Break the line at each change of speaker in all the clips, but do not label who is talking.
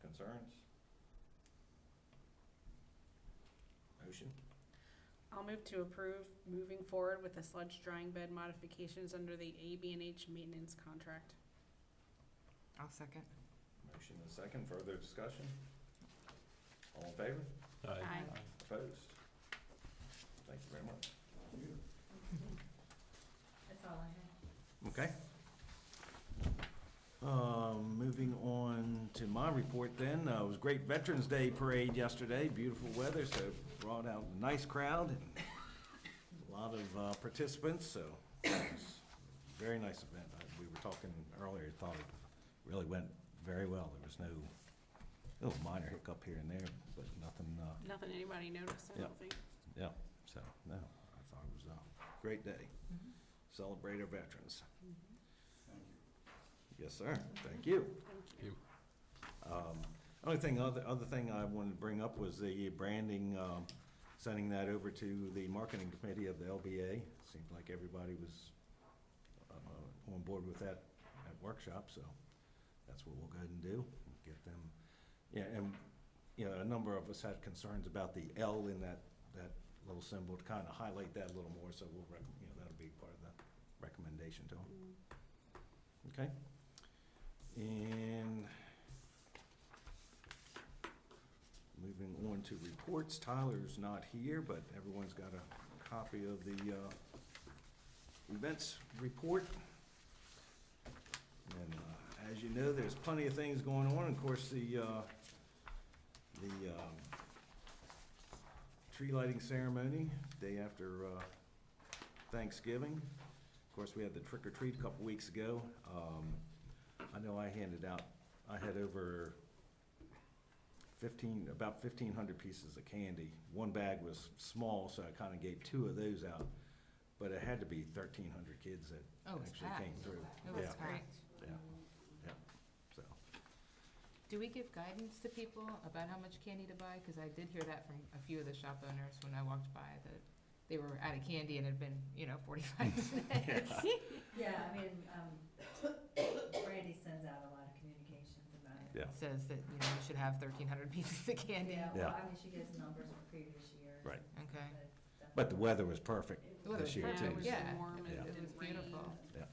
concerns? Motion?
I'll move to approve moving forward with the sludge drying bed modifications under the ab and H maintenance contract.
I'll second.
Motion and second, further discussion? All in favor?
Aye.
Opposed? Thank you very much.
That's all I have.
Okay. Um, moving on to my report then, uh, it was great Veterans Day parade yesterday, beautiful weather, so brought out a nice crowd and a lot of, uh, participants, so it was a very nice event. I- We were talking earlier, thought it really went very well. There was no, little minor hiccup here and there, but nothing, uh,
Nothing anybody noticed, I
Yep.
don't think.
yeah, so, no, I thought it was a great day.
Mm-hmm.
Celebrate our veterans. Yes, sir, thank you.
Thank you.
Um, Only thing, other, other thing I wanted to bring up was the branding, um, sending that over to the marketing committee of the LBA. Seemed like everybody was, uh, on board with that at workshop, so that's what we'll go ahead and do, and get them. Yeah, and, you know, a number of us had concerns about the L in that, that little symbol, to kind of highlight that a little more, so we'll, rec- you know, that'll be part of the recommendation to them. Okay. And moving on to reports, Tyler's not here, but everyone's got a copy of the uh, events report. And uh, as you know, there's plenty of things going on. Of course, the, uh, the um, tree lighting ceremony, day after uh, Thanksgiving. Of course, we had the trick or treat a couple weeks ago. Um, I know I handed out, I had over fifteen, about fifteen hundred pieces of candy. One bag was small, so I kind of gave two of those out. But it had to be thirteen hundred kids that
Oh, it was
actually
packed.
came through.
It was
Yeah,
great.
Yeah, yeah, so,
Do we give guidance to people about how much candy to buy? Because I did hear that from a few of the shop owners when I walked by, that they were out of candy and had been, you know, forty-five minutes.
Yeah, I mean, um, Brandy sends out a lot of communications about it.
yeah,
Says that, you know, we should have thirteen hundred pieces of candy.
Yeah, well,
Yeah.
I mean, she gives numbers from previous years.
right.
Okay.
But the weather was perfect
The weather was
this year
perfect,
too.
yeah.
warm and
Yeah.
It was
it didn't rain.
beautiful.
Yeah.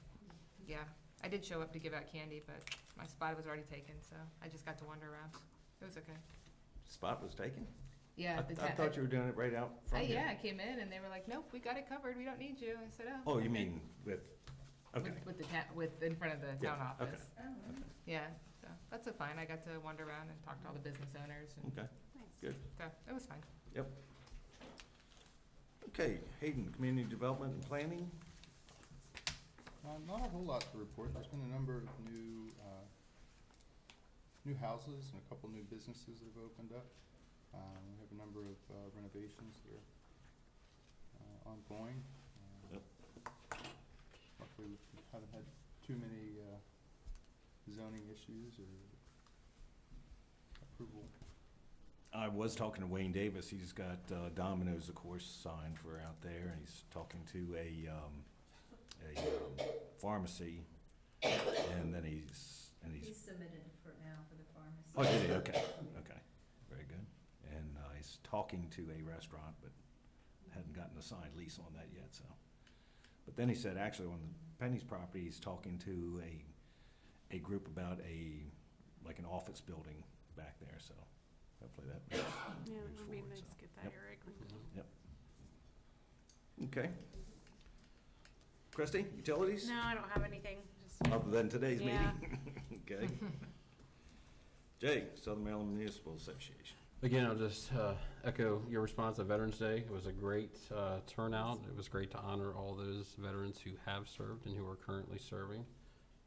Yeah, I did show up to give out candy, but my spot was already taken, so I just got to wander around. It was okay.
Spot was taken? I
Yeah. the
I
ta-
thought you were doing it right out
Uh,
front here.
yeah, I came in and they were like, nope, we got it covered, we don't need you. I said, oh.
Oh, you mean with,
With-
Oh, okay,
With the ta- with, in front of the
Yeah,
town office.
Oh, right.
Yeah, so that's a fine. I got to wander around and talk to all the business owners and,
okay,
Nice.
good,
so it was fine.
yep. Okay, Hayden, Community Development and Planning,
Uh, Not a whole lot to report. There's been a number of new, uh, new houses and a couple new businesses that have opened up. Um, We have a number of uh, renovations that are uh, ongoing. Uh,
Yep.
Luckily, we haven't had too many uh, zoning issues or approval.
I was talking to Wayne Davis, he's got uh, Domino's, of course, signed for out there, and he's talking to a, um, a um, pharmacy, and then he's, and he's
He's submitted for now for the pharmacy.
Oh, did he? Okay, okay. Very good. And uh, he's talking to a restaurant, but hadn't gotten a signed lease on that yet, so. But then he said, actually, on the Penny's property, he's talking to a, a group about a, like an office building back there, so hopefully that moves-
Yeah,
moves
it'd be
forward,
nice
so.
to get that,
Yep.
Eric.
Okay. Christie, utilities?
No, I don't have anything, just,
Mm-hmm. Other than today's
Yeah.
meeting? Okay. Jay, Southern Maryland Municipal Association.
Again, I'll just uh, echo your response to Veterans Day. It was a great uh, turnout. It was great to honor all those veterans who have served and who are currently serving.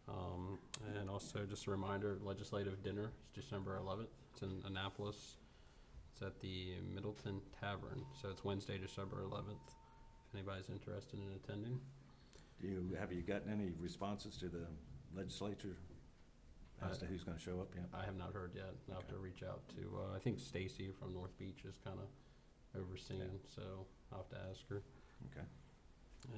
Um, And also, just a reminder, legislative dinner is December 11th. It's in Annapolis. It's at the Middleton Tavern. So it's Wednesday, December 11th, if anybody's interested in attending.
Do you, have you gotten any responses to the legislature as to who's gonna show up yet?
I have not heard yet. I'll have to
Okay.
reach out to, uh, I think Stacy from North Beach is kind of overseeing, so I'll have to ask her.
Okay.